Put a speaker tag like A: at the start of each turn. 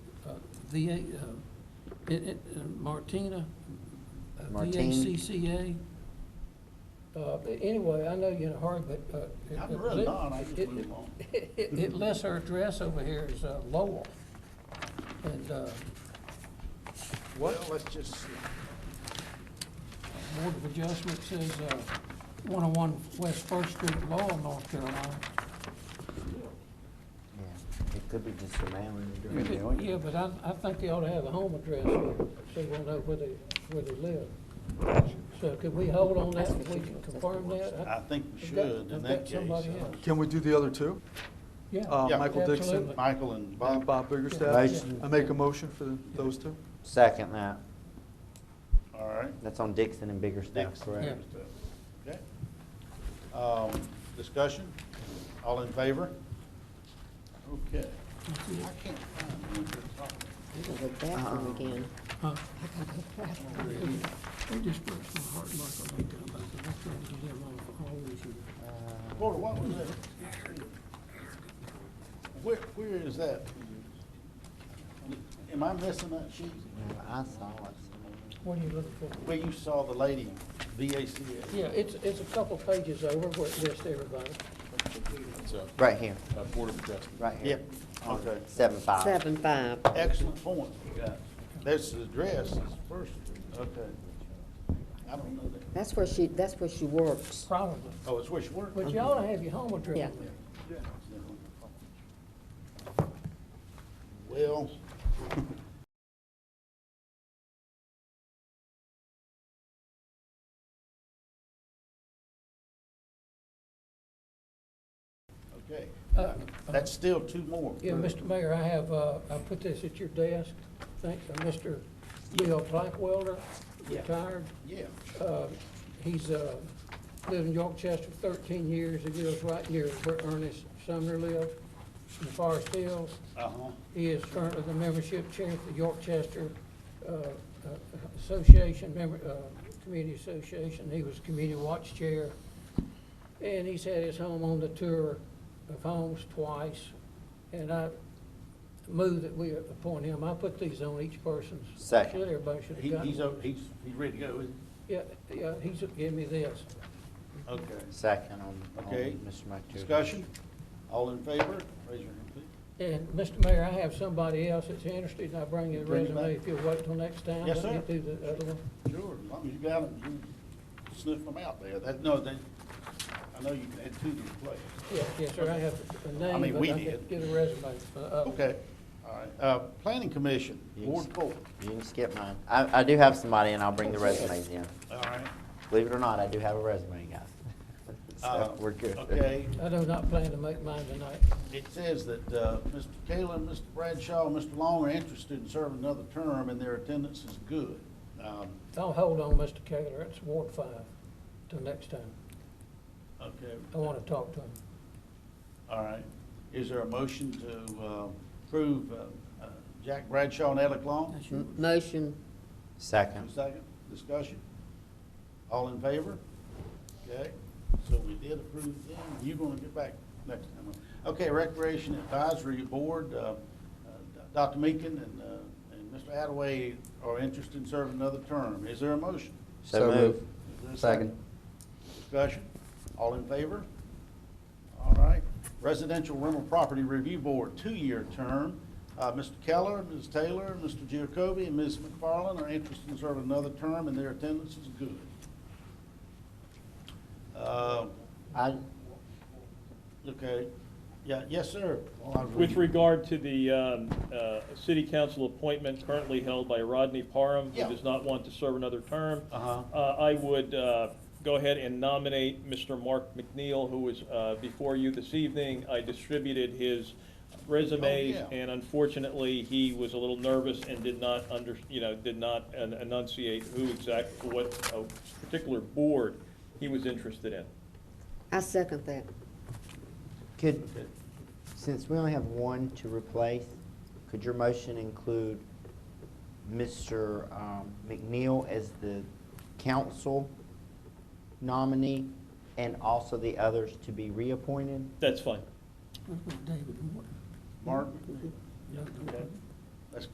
A: VA, uh, it- it- uh, Martina, uh,
B: Martine.
A: VACCA. Uh, but Anyway, I know you're in a hurry, but. uh, it-
C: I'm really not, I just
A: it-
C: move on.
A: It it lists her address over here is uh, Lowell. And uh,
C: Well, let's just, see.
A: Board of Adjustment says uh, 101 West First Street, Lowell, North Carolina.
B: Yeah, it could be just a mailing
C: Yeah,
B: address.
C: they don't.
A: Yeah, but I I think they ought to have a home address here, so we'll know where they, where they live. So could we hold on that, if we can confirm that?
C: I think we
A: We've got-
C: should in
A: we've
C: that
A: got
C: case.
A: somebody
C: uh,
A: else.
D: Can we do the other two?
A: Yeah.
D: Uh,
C: Yeah.
D: Michael Dixon
A: Absolutely.
C: Michael and
D: and
C: Bob,
D: Bob Biggerstaff?
B: Motion.
D: I make a motion for the- those two?
B: Second that,
C: all right.
B: that's on Dixon and Biggerstaff,
C: Dixon.
B: correct?
C: Okay. Um, Discussion, all in favor? Okay. I can't find one that's on
E: I gotta go bathroom again.
A: Huh? They just broke my heart, Michael, like that, about that. I tried to get him off all these years.
C: there. Porter, what was that? Where, where is that? Am I missing that sheet?
B: Yeah, I saw it.
A: What are you looking for?
C: Where you saw the lady, VACA?
A: Yeah, it's, it's a couple pages over where it lists everybody.
F: So,
B: Right here,
F: uh, Board of Adjustment.
B: right here.
C: Okay.
B: Seven five.
E: Seven five.
C: Excellent point. you got. That's the address, is first, okay. I don't know that.
E: That's where she, that's where she works.
A: Probably.
C: Oh, it's where she worked?
A: But you ought to have your home address.
E: Yeah.
C: Well, okay,
A: Uh,
C: that's still two more.
A: Yeah, Mr. Mayor, I have, uh, I put this at your desk, thanks to Mr. Leo Blackwelder,
C: Yeah.
A: retired.
C: Yeah,
A: Uh, He's uh, lived in York Chester 13 years, he lives right near where Ernest Sumner lives, in Forest Hills.
C: uh-huh.
A: He is currently the membership chair for the York Chester uh, uh, Association, member, uh, Community Association. He was community watch chair. And he's had his home on the tour of homes twice. And I move that we appoint him. I put these on each person's.
B: Second.
A: Should Everybody should have
C: He,
A: gotten.
C: he's,
A: one.
C: o- he's, he's ready to go, isn't
A: Yeah, yeah, he's, give me this.
C: he? Okay.
B: Second on, on
C: Okay.
B: Mr. McTiernan.
C: Discussion, all in favor, raise your hand, please.
A: And, Mr. Mayor, I have somebody else that's interested, and I'll bring you the
C: Bring it
A: resume
C: back.
A: if you'll wait till next time.
C: Yes,
A: Let me
C: sir.
A: do the other one.
C: Sure, as long as you got them, you sniff them out there. That, no, they, I know you had two to play.
A: Yes, yes, sir, I have a
C: I mean,
A: name, but
C: we
A: I
C: did.
A: didn't get a resume uh, for the other.
C: Okay, all right. Uh, Planning Commission, Ward Four.
B: You can skip mine. I, I do have somebody and I'll bring the resumes in.
C: All right.
B: Believe it or not, I do have a resume, guys.
C: Uh,
B: So, we're good.
C: Okay,
A: I do not plan to make mine tonight.
C: it says that, uh, Mr. Kalen, Mr. Bradshaw, and Mr. Long are interested in serving another term, and their attendance is good. Um,
A: I'll hold on, Mr. Kaler, it's Ward Five, till next time.
C: okay,
A: I want to talk to him.
C: all right. Is there a motion to, uh, approve, uh, uh, Jack Bradshaw and Alec Long?
E: M- Motion,
B: Second.
C: Second, discussion? All in favor? Okay, so we did approve them, you're gonna get back next time. Okay, Recreation Advisory Board, uh, uh, Dr. Meakin and, uh, and Mr. Attaway are interested in serving another term. Is there a motion?
B: So move.
C: Is there a
B: Second.
C: Discussion? All in favor? All right. Residential Rental Property Review Board, two-year term. Uh, Mr. Keller, Ms. Taylor, Mr. Giacobi, and Ms. McFarland are interested in serving another term, and their attendance is good. Uh,
B: I,
C: Okay. Yeah, yes, sir. Well, I
G: With
C: read-
G: regard to the um, uh, city council appointment currently held by Rodney Parham, who
C: Yeah.
G: does not want to serve another term,
C: Uh-huh.
G: uh, I would uh, go ahead and nominate Mr. Mark McNeil, who was uh, before you this evening. I distributed his resumes,
C: Oh, yeah.
G: and unfortunately, he was a little nervous and did not under, you know, did not en- enunciate who exact, what uh, particular board he was interested in.
E: I second that.
B: could,
C: Okay.
B: since we only have one to replace, could your motion include Mr. um, McNeil as the council nominee and also the others to be reappointed?
G: That's fine.
A: That's what David Morton.
C: Mark?
A: No, no,
C: Okay.